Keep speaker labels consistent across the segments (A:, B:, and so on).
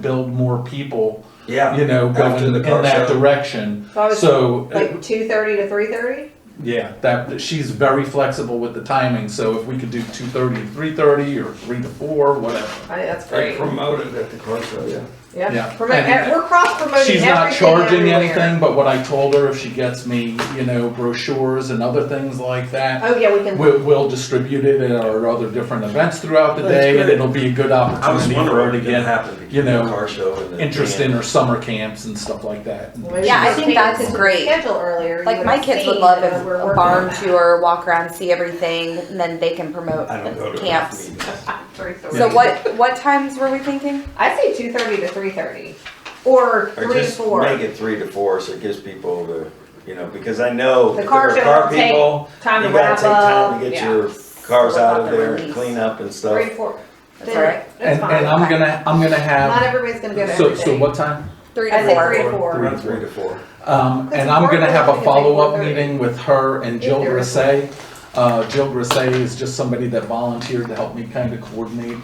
A: build more people,
B: Yeah.
A: you know,
B: After
A: going
B: the
A: in
B: car
A: that
B: show.
A: direction.
C: So I was
A: So, uh,
C: like two thirty to three thirty.
A: yeah, that, that she's very flexible with the timing, so if we could do two thirty to three thirty or three to four, whatever.
C: I think that's
B: They
C: great.
B: promoted at the car show, yeah.
C: Yeah,
A: yeah.
C: Promote- e-,
A: And-
C: we're cross promoting.
A: She's not charging anything, but what I told her, if she gets me, you know, brochures and other things like that,
C: Oh yeah, we can.
A: we'll, we'll distribute it at our other different events throughout the
B: That's
A: day, and
B: good.
A: it'll be a good
B: I was
A: opportunity for her
B: wondering
A: to
B: if it
A: get
B: happened,
A: you
B: you know,
A: know,
B: car show and. the
A: interest in
B: band.
A: her summer camps and stuff like that.
C: Well, maybe
D: Yeah, I
C: we
D: think
C: could
D: that's
C: change the
D: great.
C: Schedule earlier. you
D: Like my
C: have
D: kids would
C: seen
D: love
C: that
D: if
C: we're
D: a
C: working
D: barn
C: on
D: tour, walk around, see everything, and then they can promote
B: I don't go
D: the
B: to
D: camps.
B: camps. meetings.
C: that. 3:30.
D: So what, what times were we thinking?
C: I say two thirty to three thirty, or
B: Or
C: three to
B: just
C: four.
B: make it three to four, so it gives people the, you know, because I know.
C: The
B: if
C: car
B: there are
C: show
B: car
C: will take
B: people,
C: time to
B: You gotta
C: wrap
B: take time
C: up.
B: to get
C: yeah.
B: your cars
D: What
B: out
D: about
B: of
D: the
B: there and
D: release?
B: clean up and
C: three
B: stuff.
C: to four.
D: That's
C: Then
D: all right.
C: That's
A: And,
C: fine.
A: and I'm gonna, I'm gonna
C: not
A: have,
C: everybody's gonna get
A: so,
C: everything.
A: so what time?
D: Three
C: I
D: to
C: said
D: four.
C: three to four.
B: Around Three to four.
A: Um,
C: That's
A: and I'm gonna
C: important.
A: have
C: We
A: a
C: can make
A: follow-up
C: one thirty.
A: meeting with her and Jill
C: If there is one.
A: Grisay. Uh, Jill Grisay is just somebody that volunteered to help me kind of coordinate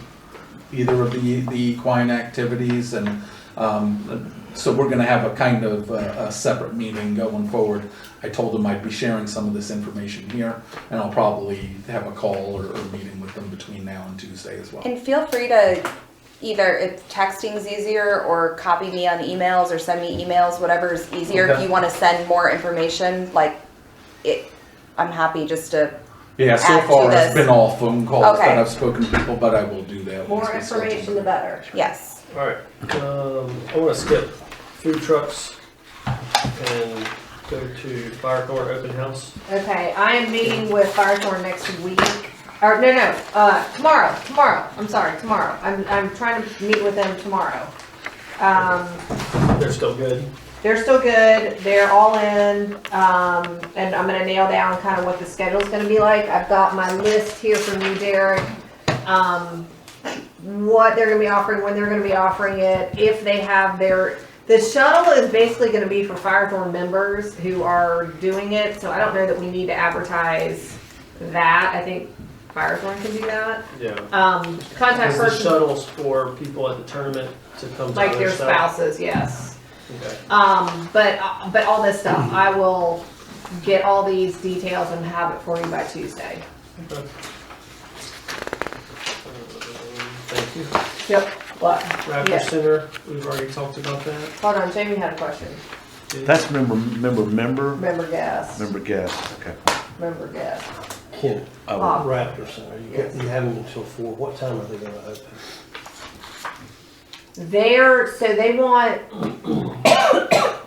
A: either of the, the equine activities and, um, so we're gonna have a kind of, uh, a separate meeting going forward. I told them I'd be sharing some of this information here, and I'll probably have a call or, or meeting with them between now and Tuesday as well.
D: And feel free to either, if texting's easier, or copy me on emails, or send me emails, whatever is easier. If
A: Okay.
D: you wanna send more information, like, it, I'm happy just to,
A: Yeah, so
D: add to
A: far it's
D: this.
A: been all phone calls
D: Okay.
A: that I've spoken to people, but I will do that. once
C: More
A: we schedule
C: information, the
A: them.
C: better.
D: yes.
E: All right, um, I want to skip food trucks and go to fire court open house.
C: Okay, I am meeting with Firethorn next week, or no, no, uh, tomorrow, tomorrow, I'm sorry, tomorrow. I'm, I'm trying to meet with them tomorrow. Um,
E: They're still good.
C: they're still good, they're all in, um, and I'm gonna nail down kind of what the schedule's gonna be like. I've got my list here from you, Derek. Um, what they're gonna be offering, when they're gonna be offering it, if they have their, the shuttle is basically gonna be for Firethorn members who are doing it, so I don't know that we need to advertise that. I think Firethorn can do that.
E: Yeah.
C: Um, contact
E: Is the
C: person,
E: shuttles for people at the tournament to come to
C: like
E: their
C: their
E: stuff?
C: spouses, yes.
E: Okay.
C: Um, but, but all this stuff,
F: Mm-hmm.
C: I will get all these details and have it for you by Tuesday.
E: Okay. Um, Thank you.
C: Yep. What? Yeah.
E: Raptor Center, we've already talked about that.
C: Hold on, Jamie had a question.
E: too.
G: That's member, member, member,
C: Member guest,
G: member guest, okay.
C: member guest.
F: Ken,
G: Oh,
C: Bob,
F: Raptor Center, you got, you have them until four, what time are they gonna open?
C: They're, so they want,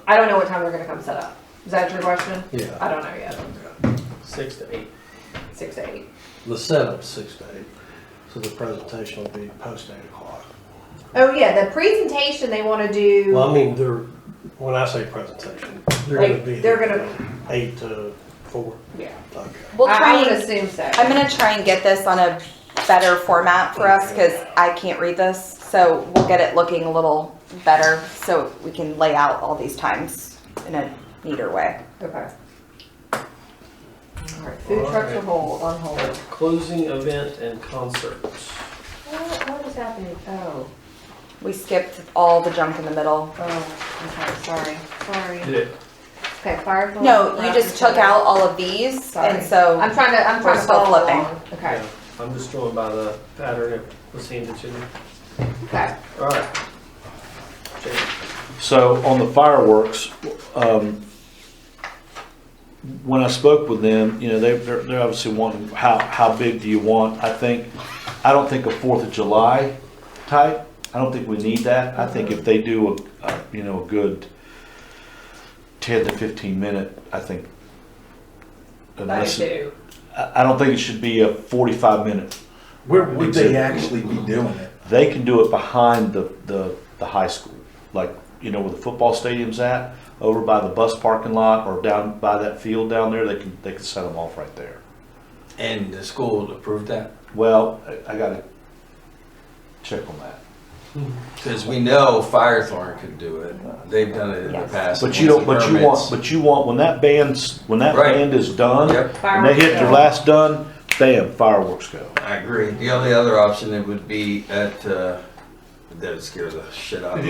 C: I don't know what time they're gonna come set up. Is that your question?
F: Yeah.
C: I don't know yet.
E: Six to eight.
C: Six to eight.
F: The setup, six to eight, so the presentation will be post eight o'clock.
C: Oh, yeah, the presentation they wanna
F: Well, I
C: do,
F: mean, they're, when I say presentation, they're
C: Like,
F: gonna be.
C: they're gonna-
F: Eight to four,
C: yeah,
F: okay.
D: We'll
C: I
D: try
C: I would
D: and
C: assume so.
D: I'm gonna try and get this on a better format for us, cause I can't read this, so we'll get it looking a little better, so we can lay out all these times in a neater way.
C: Okay. All right, food trucks are hold, on hold.
E: Uh, Closing event and concerts.
C: What, what is happening? Oh.
D: We skipped all the junk in the middle.
C: Oh, okay, sorry,
E: Did
C: sorry.
E: it
C: Okay, Firefly.
D: No, you just took out all of these,
C: Sorry.
D: and so,
C: I'm trying to, I'm
D: We're
C: trying to
D: still
C: follow
D: flipping.
C: along. Okay,
E: Yeah, I'm just going by the pattern it was handed to me.
C: okay.
E: All right. Jamie.
G: So on the fireworks, um, when I spoke with them, you know, they, they're, they're obviously wanting, how, how big do you want? I think, I don't think a Fourth of July type, I don't think we need that. I think if they do a- a, you know, a good ten to fifteen minute, I think. unless it-
C: Ninety-two.
G: I, I don't think it should be a forty-five minute
A: Where would they
G: Exhibit.
A: actually be doing it?
G: they can do it behind the, the, the high school. Like, you know, where the football stadium's at, over by the bus parking lot or down by that field down there, they can, they can set them off right there.
B: And the school approved that?
G: Well, I, I gotta check on that.
B: Because we know Firethorn could do it. They've done it in the
D: Yes.
B: past.
G: But you
B: once the
G: don't, but you want,
B: permits-
G: but you want, when that band's, when that
B: Right.
G: band is done,
B: Yep,
G: and they hit their last done, bam, fireworks go.
B: I agree. The only other option it would be at uh, the that would scare the shit out of me.